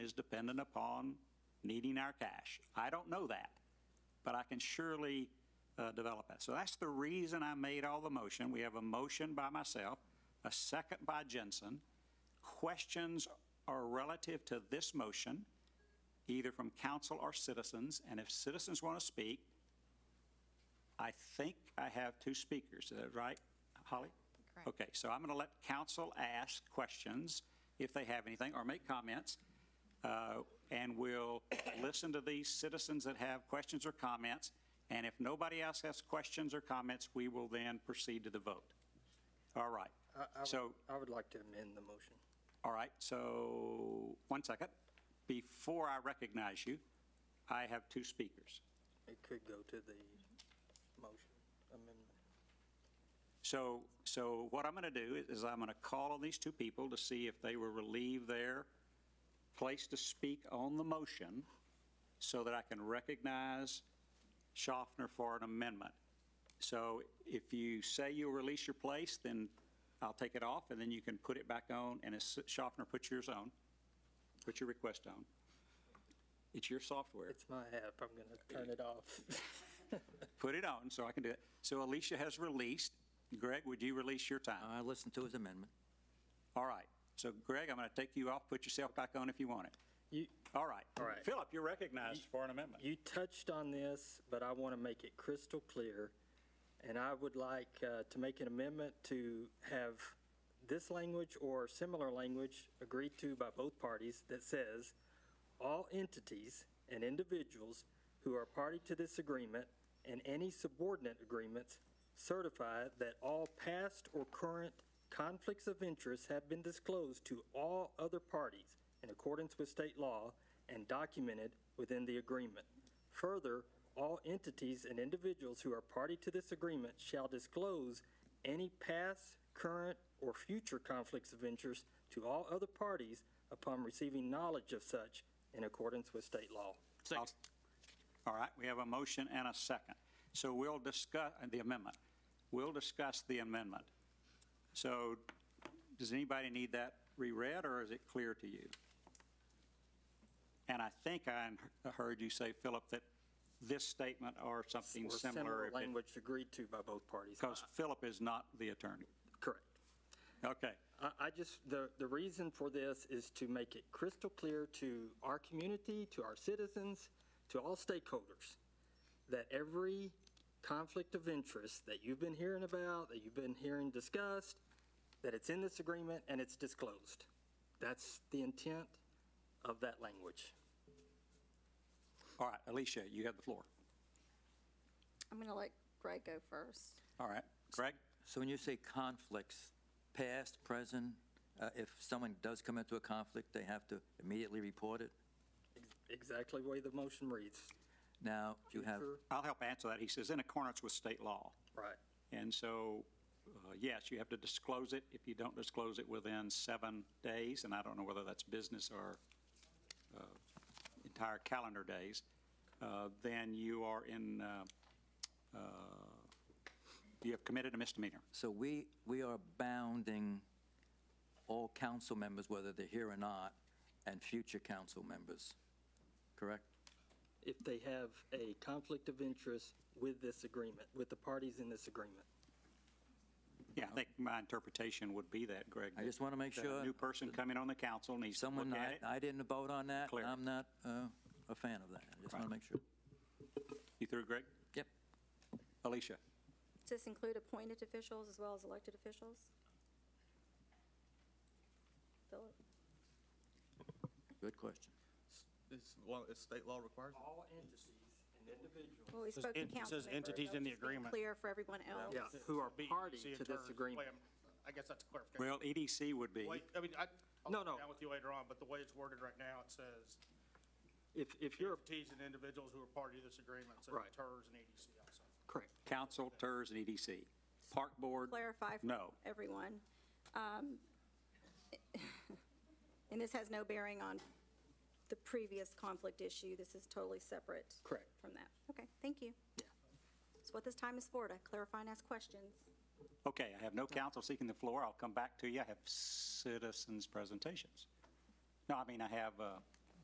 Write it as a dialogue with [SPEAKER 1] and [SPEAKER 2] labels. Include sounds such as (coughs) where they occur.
[SPEAKER 1] is dependent upon needing our cash. I don't know that, but I can surely uh, develop that. So that's the reason I made all the motion. We have a motion by myself, a second by Jensen. Questions are relative to this motion, either from council or citizens, and if citizens want to speak, I think I have two speakers, is that right, Holly?
[SPEAKER 2] Correct.
[SPEAKER 1] Okay, so I'm going to let council ask questions if they have anything, or make comments, uh, and we'll (coughs) listen to these citizens that have questions or comments, and if nobody else has questions or comments, we will then proceed to the vote. All right,
[SPEAKER 3] I- I would-
[SPEAKER 1] so-
[SPEAKER 3] I would like to amend the motion.
[SPEAKER 1] all right, so, one second. Before I recognize you, I have two speakers.
[SPEAKER 3] It could go to the motion amendment.
[SPEAKER 1] So, so what I'm going to do is- is I'm going to call on these two people to see if they will relieve their place to speak on the motion so that I can recognize Schaffner for an amendment. So if you say you'll release your place, then I'll take it off and then you can put it back on. And as Schaffner, put yours on, put your request on. It's your software.
[SPEAKER 3] It's my app, I'm going to turn it off. (laughs)
[SPEAKER 1] Put it on so I can do it. So Alicia has released. Greg, would you release your time?
[SPEAKER 4] I listened to his amendment.
[SPEAKER 1] All right. So Greg, I'm going to take you off, put yourself back on if you want it.
[SPEAKER 3] You,
[SPEAKER 1] All right.
[SPEAKER 3] All right.
[SPEAKER 1] Philip, you're recognized for an amendment.
[SPEAKER 3] you touched on this, but I want to make it crystal clear. And I would like uh, to make an amendment to have this language or similar language agreed to by both parties that says, all entities and individuals who are party to this agreement and any subordinate agreements certify that all past or current conflicts of interest have been disclosed to all other parties in accordance with state law and documented within the agreement. Further, all entities and individuals who are party to this agreement shall disclose any past, current, or future conflicts of interest to all other parties upon receiving knowledge of such in accordance with state law.
[SPEAKER 1] Second. All right, we have a motion and a second. So we'll discuss uh, the amendment. We'll discuss the amendment. So does anybody need that reread, or is it clear to you? And I think I heard you say, Philip, that this statement or something
[SPEAKER 3] Or
[SPEAKER 1] similar. if it-
[SPEAKER 3] language agreed to by both parties.
[SPEAKER 1] Because Philip is not the attorney.
[SPEAKER 3] Correct.
[SPEAKER 1] Okay.
[SPEAKER 3] I, I just, the, the reason for this is to make it crystal clear to our community, to our citizens, to all stakeholders, that every conflict of interest that you've been hearing about, that you've been hearing discussed, that it's in this agreement and it's disclosed. That's the intent of that language.
[SPEAKER 1] All right, Alicia, you have the floor.
[SPEAKER 2] I'm going to let Greg go first.
[SPEAKER 1] All right, Greg?
[SPEAKER 4] So when you say conflicts, past, present, uh, if someone does come into a conflict, they have to immediately report it?
[SPEAKER 3] Exactly the way the motion reads.
[SPEAKER 4] Now, you have,
[SPEAKER 3] Future-
[SPEAKER 1] I'll help answer that. He says, in accordance with state law.
[SPEAKER 3] Right.
[SPEAKER 1] And so, uh, yes, you have to disclose it. If you don't disclose it within seven days, and I don't know whether that's business or uh, entire calendar days, uh, then you are in, uh, uh, you have committed a misdemeanor.
[SPEAKER 4] so we, we are bounding all council members, whether they're here or not, and future council members, correct?
[SPEAKER 3] If they have a conflict of interest with this agreement, with the parties in this agreement.
[SPEAKER 1] Yeah, I think my interpretation would be that, Greg.
[SPEAKER 4] I just wanna make
[SPEAKER 1] that a
[SPEAKER 4] sure
[SPEAKER 1] new person coming on the council needs to look
[SPEAKER 4] Someone,
[SPEAKER 1] at
[SPEAKER 4] I,
[SPEAKER 1] it.
[SPEAKER 4] I didn't vote on that.
[SPEAKER 1] Clear.
[SPEAKER 4] I'm not uh, a fan of that. I just
[SPEAKER 1] Right.
[SPEAKER 4] want to make sure.
[SPEAKER 1] You through, Greg?
[SPEAKER 4] Yep.
[SPEAKER 1] Alicia?
[SPEAKER 2] Does this include appointed officials as well as elected officials? Philip?
[SPEAKER 4] Good question.
[SPEAKER 5] It's, well, it's state law required.
[SPEAKER 3] All entities and individuals.
[SPEAKER 2] Well, we
[SPEAKER 6] Says
[SPEAKER 2] spoke to
[SPEAKER 6] en- it
[SPEAKER 2] council.
[SPEAKER 6] says entities
[SPEAKER 2] members.
[SPEAKER 6] in the
[SPEAKER 2] Just being
[SPEAKER 6] agreement.
[SPEAKER 2] Clear for everyone else.
[SPEAKER 3] Yeah, who are
[SPEAKER 6] Be-
[SPEAKER 3] party
[SPEAKER 6] see
[SPEAKER 3] to this
[SPEAKER 6] attorney-
[SPEAKER 3] agreement.
[SPEAKER 6] wait a minute. I guess that's a clarification.
[SPEAKER 1] Well, EDC would be.
[SPEAKER 6] Wait, I mean, I, I'll
[SPEAKER 3] No,
[SPEAKER 6] sit
[SPEAKER 3] no.
[SPEAKER 6] down with you later on, but the way it's worded right now, it says
[SPEAKER 3] If, if you're,
[SPEAKER 6] entities and individuals who are party to this agreement, so
[SPEAKER 3] Right.
[SPEAKER 6] TERS and E EDC also.
[SPEAKER 3] correct,
[SPEAKER 1] Council, TERS, and EDC. Park Board,
[SPEAKER 2] Clarify for
[SPEAKER 1] No.
[SPEAKER 2] everyone. Um, And this has no bearing on the previous conflict issue. This is totally separate
[SPEAKER 3] correct.
[SPEAKER 2] from that. Okay, thank you. That's what this time is for, to clarify and ask questions.
[SPEAKER 1] okay, I have no council seeking the floor, I'll come back to you, I have citizens' presentations. No, I mean, I have uh,